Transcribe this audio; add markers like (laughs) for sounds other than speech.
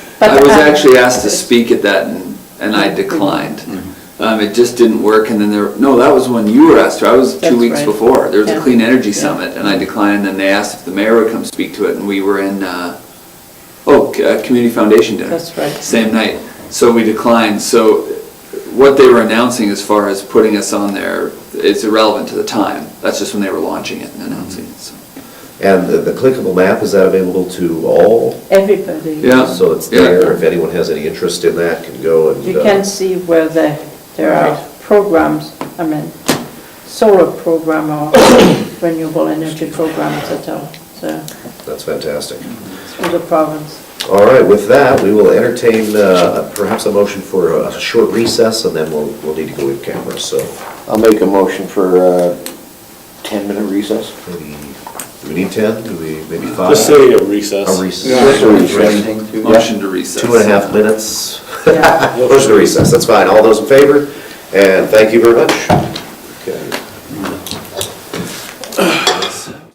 But, I was um, Mm-hmm. actually asked to speak at that and, and I declined. Mm-hmm. Um, it just didn't work and then there, no, that was when you were asked to, I was That's two weeks right. before. There was Yeah. a clean energy Yeah. summit and I declined and then they asked if the mayor would come speak to it and we were in, uh, oh, c- uh, community foundation dinner. That's right. Same night. So we declined. So what they were announcing as far as putting us on there is irrelevant to the time. That's just when they were launching it and announcing it, so. And the the clickable map, is that available to all? Everybody. Yeah. So it's Yeah. there, if anyone has any interest in that, can go and. You uh, can see where the, there are programs, I mean, solar program or (coughs) renewable energy programs that are, so, That's fantastic. through the province. All right, with that, we will entertain uh, perhaps a motion for a short recess, and then we'll, we'll need to go in camera, so I'll make a motion for a 10-minute recess. maybe, do we need 10? Do we, maybe five? Just say a recess. A Just a recess. recess. Motion to recess. Two and a half minutes. (laughs) Yeah. Motion to recess, that's fine. All those in favor? And thank you very much. Okay.